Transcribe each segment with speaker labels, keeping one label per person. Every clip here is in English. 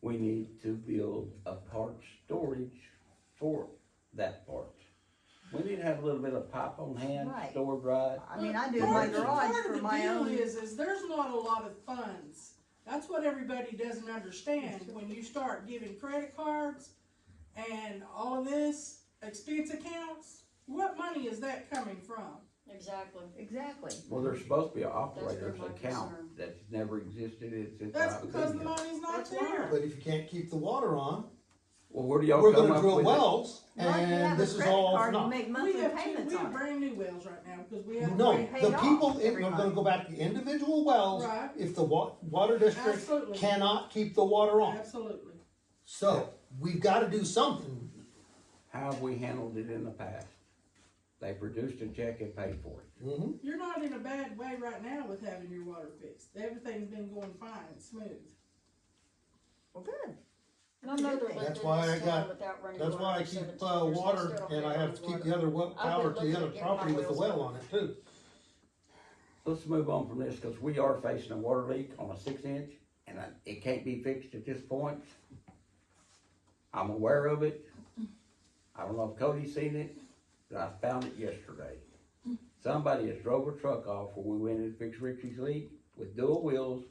Speaker 1: we need to build a parts storage for that part. We need to have a little bit of pipe on hand,
Speaker 2: Right.
Speaker 1: stored right.
Speaker 2: I mean, I do
Speaker 1: Well,
Speaker 2: my
Speaker 1: part-
Speaker 2: garage
Speaker 3: Part of
Speaker 2: for
Speaker 3: the
Speaker 2: my
Speaker 3: deal
Speaker 2: own.
Speaker 3: Is, is there's not a lot of funds. That's what everybody doesn't understand. When you start giving credit cards and all of this, expense accounts, what money is that coming from?
Speaker 4: Exactly.
Speaker 2: Exactly.
Speaker 1: Well, there's supposed to be an
Speaker 4: where
Speaker 1: operator's
Speaker 4: my
Speaker 1: account
Speaker 4: concern-
Speaker 1: that's never existed, it's, it's.
Speaker 3: That's
Speaker 1: not
Speaker 3: because
Speaker 1: been
Speaker 3: the
Speaker 1: there.
Speaker 3: money's not
Speaker 4: That's why.
Speaker 3: there.
Speaker 5: But if you can't keep the water on,
Speaker 1: Well, where do y'all
Speaker 5: we're
Speaker 1: come
Speaker 5: gonna
Speaker 1: up
Speaker 5: drill
Speaker 1: with it?
Speaker 5: wells,
Speaker 2: Right, you have
Speaker 5: and
Speaker 2: a
Speaker 5: this is
Speaker 2: credit
Speaker 5: all
Speaker 2: card,
Speaker 5: for
Speaker 2: you
Speaker 5: naught.
Speaker 2: Make
Speaker 3: We
Speaker 2: monthly
Speaker 3: have, two-
Speaker 2: payments
Speaker 3: we have
Speaker 2: on it.
Speaker 3: brand new wells right now because we have.
Speaker 5: No,
Speaker 2: Pay
Speaker 5: the
Speaker 2: it off
Speaker 5: people, if,
Speaker 2: every
Speaker 5: I'm gonna
Speaker 2: month.
Speaker 5: go back, the individual wells,
Speaker 3: Right.
Speaker 5: if the wa- water district
Speaker 3: Absolutely.
Speaker 5: cannot keep the water on.
Speaker 3: Absolutely.
Speaker 5: So, we've gotta do something,
Speaker 1: How have we handled it in the past? They produced a check and paid for it.
Speaker 5: Mhm.
Speaker 3: You're not in a bad way right now with having your water fixed. Everything's been going fine and smooth.
Speaker 2: Well, good.
Speaker 4: My mother lived
Speaker 5: That's
Speaker 4: in
Speaker 5: why
Speaker 4: this
Speaker 5: I
Speaker 4: town
Speaker 5: got-
Speaker 4: without running
Speaker 5: that's
Speaker 4: water
Speaker 5: why I
Speaker 4: for
Speaker 5: keep,
Speaker 4: 17
Speaker 5: uh,
Speaker 4: years. I
Speaker 5: water,
Speaker 4: still don't
Speaker 5: and I
Speaker 4: have
Speaker 5: have to
Speaker 4: running
Speaker 5: keep
Speaker 4: water.
Speaker 5: the other well,
Speaker 4: I've been
Speaker 5: power to the
Speaker 4: looking
Speaker 5: other
Speaker 4: at getting my
Speaker 5: property with the
Speaker 4: wells
Speaker 5: well
Speaker 4: done.
Speaker 5: on it too.
Speaker 1: Let's move on from this, cause we are facing a water leak on a six inch, and I- it can't be fixed at this point. I'm aware of it. I don't know if Cody's seen it, but I found it yesterday. Somebody has drove a truck off where we went and fixed Richie's leak with dual wheels,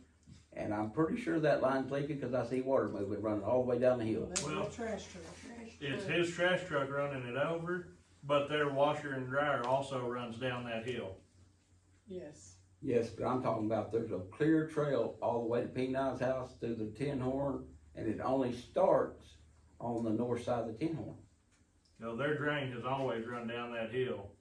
Speaker 1: and I'm pretty sure that line's leaking, cause I see water moving running all the way down the hill.
Speaker 3: That's
Speaker 6: Well-
Speaker 3: a trash truck.
Speaker 6: It's his trash truck running it over, but their washer and dryer also runs down that hill.
Speaker 3: Yes.
Speaker 1: Yes, but I'm talking about there's a clear trail all the way to P nine's house through the Tin Horn, and it only starts on the north side of the Tin Horn.
Speaker 6: You know, their drain has always run down that hill.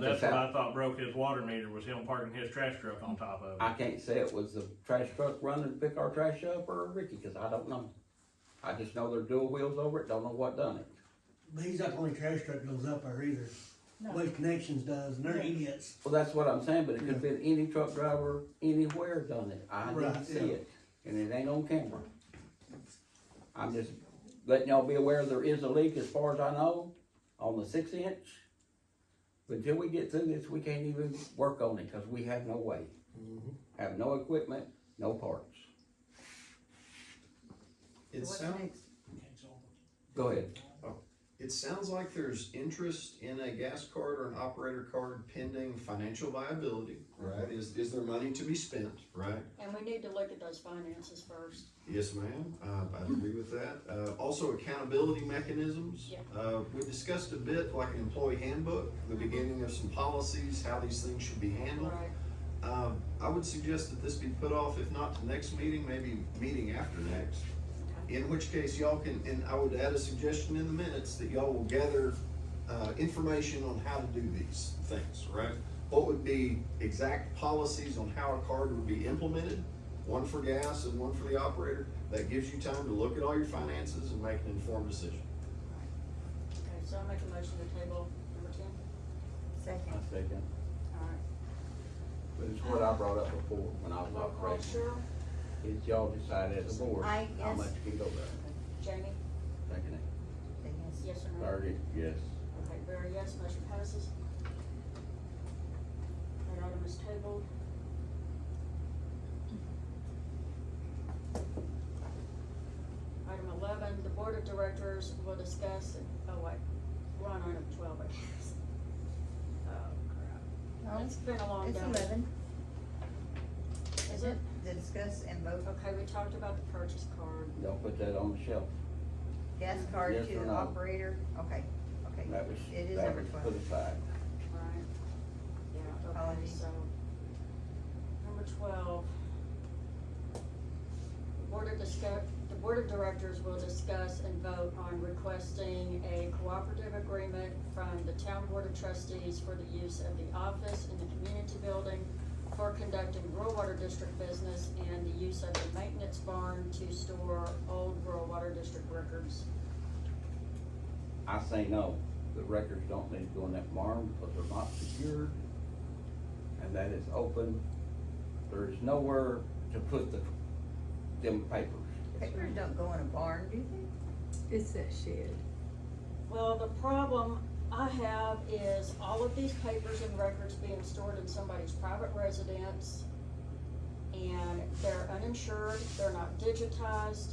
Speaker 1: But
Speaker 6: that's
Speaker 1: that's
Speaker 6: what
Speaker 1: how-
Speaker 6: I thought broke his water meter was him parking his trash truck on top of
Speaker 1: I
Speaker 6: it.
Speaker 1: can't say it was the trash truck running to pick our trash up or Ricky, cause I don't know. I just know they're dual wheels over it, don't know what done it.
Speaker 7: But he's not the only trash truck goes up there either.
Speaker 3: No.
Speaker 7: Waste Connections does, and they're idiots.
Speaker 1: Well, that's what I'm saying, but it could've been any truck driver anywhere done it. I didn't
Speaker 7: Right,
Speaker 1: see
Speaker 7: yeah.
Speaker 1: it, and it ain't on camera. I'm just letting y'all be aware there is a leak as far as I know on the six inch. But Until we get through this, we can't even work on it, cause we have no way,
Speaker 7: Mm-hmm.
Speaker 1: have no equipment, no parts.
Speaker 8: It
Speaker 2: What's
Speaker 8: sound,
Speaker 2: next?
Speaker 1: Go ahead.
Speaker 8: it sounds like there's interest in a gas card or an operator card pending financial viability, right? Is, is there money to be spent, right?
Speaker 4: And we need to look at those finances first.
Speaker 8: Yes, ma'am, uh, I agree with that. Uh, also accountability mechanisms.
Speaker 4: Yeah.
Speaker 8: Uh, we discussed a bit like an employee handbook, the beginning of some policies, how these things should be handled.
Speaker 4: Right.
Speaker 8: Uh, I would suggest that this be put off, if not to next meeting, maybe meeting after next. In which case y'all can, and I would add a suggestion in the minutes that y'all will gather, uh, information on how to do these things, right? What would be exact policies on how a card would be implemented, one for gas and one for the operator? That gives you time to look at all your finances and make an informed decision.
Speaker 4: Okay, so I make a motion to table number ten.
Speaker 2: Second.
Speaker 1: I second.
Speaker 4: All right.
Speaker 1: But it's what I brought up before when I was
Speaker 4: Roll call,
Speaker 1: operating.
Speaker 4: Cheryl,
Speaker 1: It's y'all decide as a board
Speaker 2: I-
Speaker 1: how
Speaker 2: yes.
Speaker 1: much can go there.
Speaker 4: Jamie,
Speaker 1: Second it.
Speaker 2: Say yes.
Speaker 4: yes or no?
Speaker 1: Thirty, yes.
Speaker 4: Okay, Barry, yes, motion passes. That item is tabled. Item eleven, the board of directors will discuss, oh wait, we're on item twelve, I guess. Oh crap,
Speaker 2: No,
Speaker 4: it's been a long
Speaker 2: It's
Speaker 4: day.
Speaker 2: eleven.
Speaker 4: Is it?
Speaker 2: To discuss and vote
Speaker 4: Okay, we talked about the purchase card.
Speaker 1: Y'all put that on the shelf.
Speaker 2: gas card
Speaker 1: Yes
Speaker 2: to
Speaker 1: or
Speaker 2: the
Speaker 1: no?
Speaker 2: operator. Okay, okay.
Speaker 1: That was,
Speaker 2: It is
Speaker 1: that
Speaker 2: number
Speaker 1: was
Speaker 2: twelve.
Speaker 1: put aside.
Speaker 4: Right. Yeah, okay,
Speaker 2: Apologies.
Speaker 4: so, number twelve. The Board of discuss, the Board of Directors will discuss and vote on requesting a cooperative agreement from the Town Board of Trustees for the use of the office in the community building for conducting rural water district business and the use of the maintenance barn to store old rural water district records.
Speaker 1: I say no, the records don't need to go in that barn because they're not secured. And that is open. There is nowhere to put the, them papers.
Speaker 2: Papers don't go in a barn, do they?
Speaker 9: It's that shed.
Speaker 4: Well, the problem I have is all of these papers and records being stored in somebody's private residence. And they're uninsured, they're not digitized,